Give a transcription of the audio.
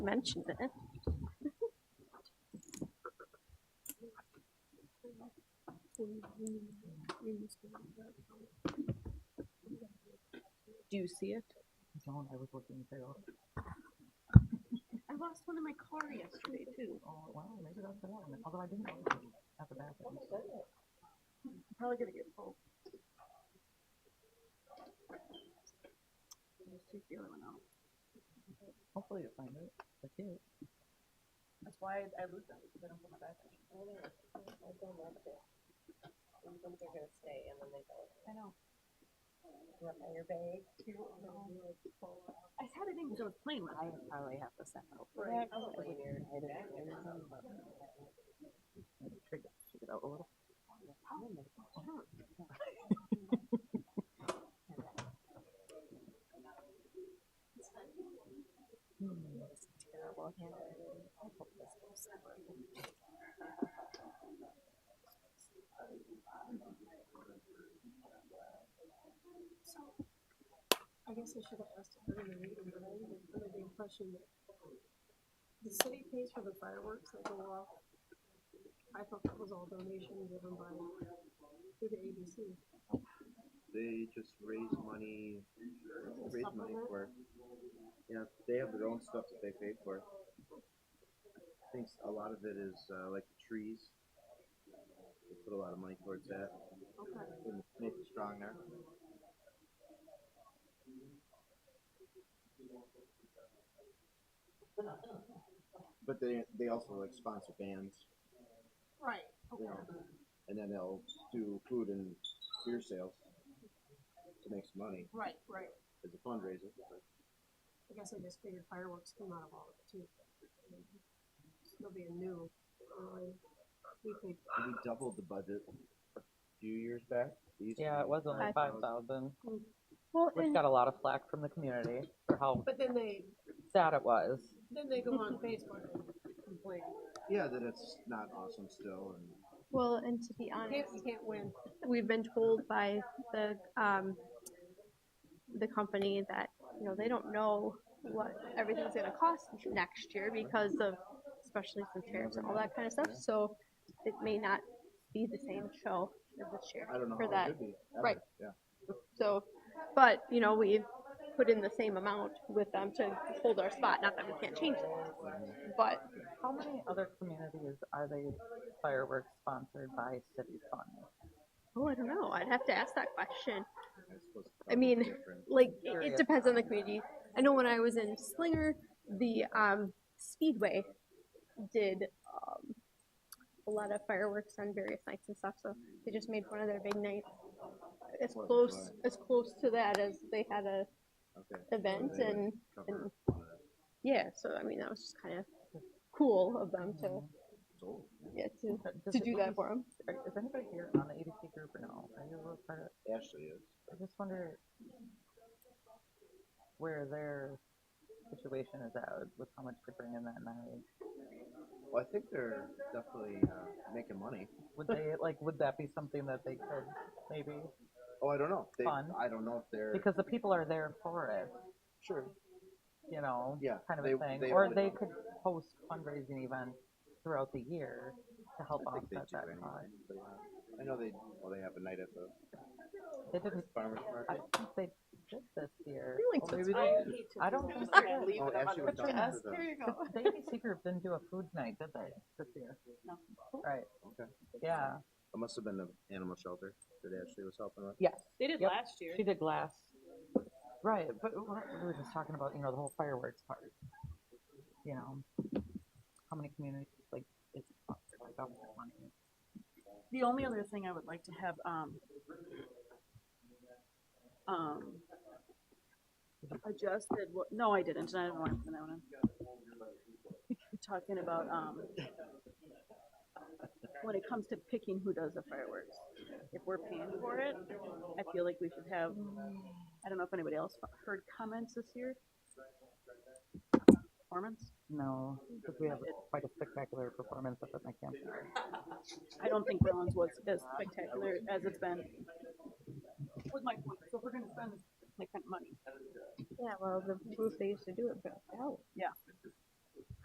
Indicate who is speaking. Speaker 1: mentioned it. Do you see it?
Speaker 2: Don't, I was looking through.
Speaker 1: I lost one in my car yesterday too.
Speaker 2: Oh, wow, maybe that's the one, although I didn't know it was at the back.
Speaker 1: I'm probably gonna get pulled. Let's Take the other one out.
Speaker 2: Hopefully you'll find it. That's it.
Speaker 3: That's why I lose them, because I don't put my back in.
Speaker 4: Ones are gonna stay and then they go,
Speaker 3: I know.
Speaker 4: you want my air bag?
Speaker 1: I had it in, because I was playing with
Speaker 4: I
Speaker 1: it.
Speaker 4: probably have to send out.
Speaker 1: Right.
Speaker 4: Probably near.
Speaker 2: Maybe Trigger, check it out a little.
Speaker 4: Terrible handwriting. I hope this goes somewhere.
Speaker 5: I guess I should have asked her in the meeting, but I was under the impression that the city pays for the fireworks that go off. I thought that was all donations given by, through the ABC.
Speaker 6: They just raise money, raise money
Speaker 5: Supplement?
Speaker 6: for. Yeah, they have their own stuff that they pay for. I think a lot of it is uh, like the trees. They put a lot of money towards that.
Speaker 5: Okay.
Speaker 6: And Make it strong there. But they they also like sponsor bands,
Speaker 5: Right,
Speaker 6: you know, and then they'll do food and beer sales to make some money
Speaker 5: right, right.
Speaker 6: as a fundraiser.
Speaker 5: I guess I just figured fireworks came out of all of it too. It'll be a new, um, we could,
Speaker 6: we doubled the budget a few years back. They used to
Speaker 2: Yeah, it
Speaker 6: be
Speaker 2: was only
Speaker 1: I-
Speaker 2: five thousand,
Speaker 1: Well,
Speaker 2: which got a lot of flack from the community for how
Speaker 5: but then they,
Speaker 2: sad it was.
Speaker 5: then they go on Facebook and complain.
Speaker 6: Yeah, that it's not awesome still, and
Speaker 1: well, and to be
Speaker 5: You
Speaker 1: honest,
Speaker 5: can't, you can't win.
Speaker 1: we've been told by the, um, the company that, you know, they don't know what everything's gonna cost next year because of, especially some tariffs and all that kind of stuff, so it may not be the same show as this year
Speaker 6: I don't know
Speaker 1: for
Speaker 6: how it
Speaker 1: that.
Speaker 6: could be. ever.
Speaker 1: Right.
Speaker 6: Yeah.
Speaker 1: So, but, you know, we've put in the same amount with them to hold our spot, not that we can't change it, but
Speaker 2: How many other communities are they fireworks sponsored by city funds?
Speaker 1: Oh, I don't know. I'd have to ask that question.
Speaker 6: I suppose it's
Speaker 1: I mean,
Speaker 6: probably different.
Speaker 1: Like, it,
Speaker 2: Curious.
Speaker 1: it depends on the community. I know when I was in Slinger, the um, Speedway did um, a lot of fireworks on various nights and stuff. So they just made one of their big nights as
Speaker 6: Fourth of
Speaker 1: close
Speaker 6: July.
Speaker 1: as close to that as they had a
Speaker 6: okay.
Speaker 1: event,
Speaker 6: They would
Speaker 1: and
Speaker 6: cover
Speaker 1: and-
Speaker 6: all that.
Speaker 1: yeah. So I mean, that was just kind of cool of them to
Speaker 2: Mm-hmm.
Speaker 6: It's old.
Speaker 1: yeah to
Speaker 2: But Mm-hmm. does
Speaker 1: to
Speaker 2: it
Speaker 1: do
Speaker 2: really-
Speaker 1: that for them.
Speaker 2: are- Is anybody here on the ADC group or no? Are you a part of,
Speaker 6: Ashley is.
Speaker 2: I just wonder where their situation is at with how much they bring in that night.
Speaker 6: Well, I think they're definitely uh, making money.
Speaker 2: Would they like? Would that be something that they could maybe?
Speaker 6: Oh, I don't know. They,
Speaker 2: Fun.
Speaker 6: I don't know if they're
Speaker 2: Because the people are there for it,
Speaker 6: sure.
Speaker 2: you know.
Speaker 6: Yeah,
Speaker 2: Kind of
Speaker 6: they-
Speaker 2: a thing,
Speaker 6: they
Speaker 2: or
Speaker 6: would-
Speaker 2: they could host fundraising events throughout the year to help
Speaker 6: I think they
Speaker 2: offset
Speaker 6: do
Speaker 2: that
Speaker 6: anyway.
Speaker 2: cost.
Speaker 6: But, uh, I know they. Well, they have a night at the
Speaker 2: They didn't.
Speaker 6: farmers
Speaker 2: I
Speaker 6: market.
Speaker 2: don't think they did this year.
Speaker 1: Really
Speaker 2: Or maybe
Speaker 5: I
Speaker 2: they-
Speaker 5: hate to
Speaker 2: I
Speaker 5: do
Speaker 2: don't
Speaker 5: that.
Speaker 2: think
Speaker 3: Sorry, leave
Speaker 6: Oh,
Speaker 3: them on
Speaker 6: Ashley
Speaker 3: the-
Speaker 6: was talking to the.
Speaker 3: There you go.
Speaker 2: The ABC group didn't do a food night, did they, this year?
Speaker 3: No.
Speaker 2: Right,
Speaker 6: Okay.
Speaker 2: yeah,
Speaker 6: It must have been the animal shelter that Ashley was helping with.
Speaker 2: yes.
Speaker 3: They did
Speaker 2: Yep.
Speaker 3: last year.
Speaker 2: She did glass. Right, but we were we were just talking about, you know, the whole fireworks part. You know, how many communities, like, it's, like, I'm wanting-
Speaker 3: The only other thing I would like to have, um, um, adjusted, what, no, I didn't, I didn't want to put that one in. Talking about, um, when it comes to picking who does the fireworks, if we're paying for it, I feel like we should have, I don't know if anybody else heard comments this year? Performance?
Speaker 2: no, because we have quite a spectacular performance up at my campfire.
Speaker 3: I don't think Rollins was as spectacular as it's been. Was my point. So if we're gonna spend this like kind of money,
Speaker 1: Yeah. Well, the booth they used to do it for. Oh.
Speaker 3: Yeah.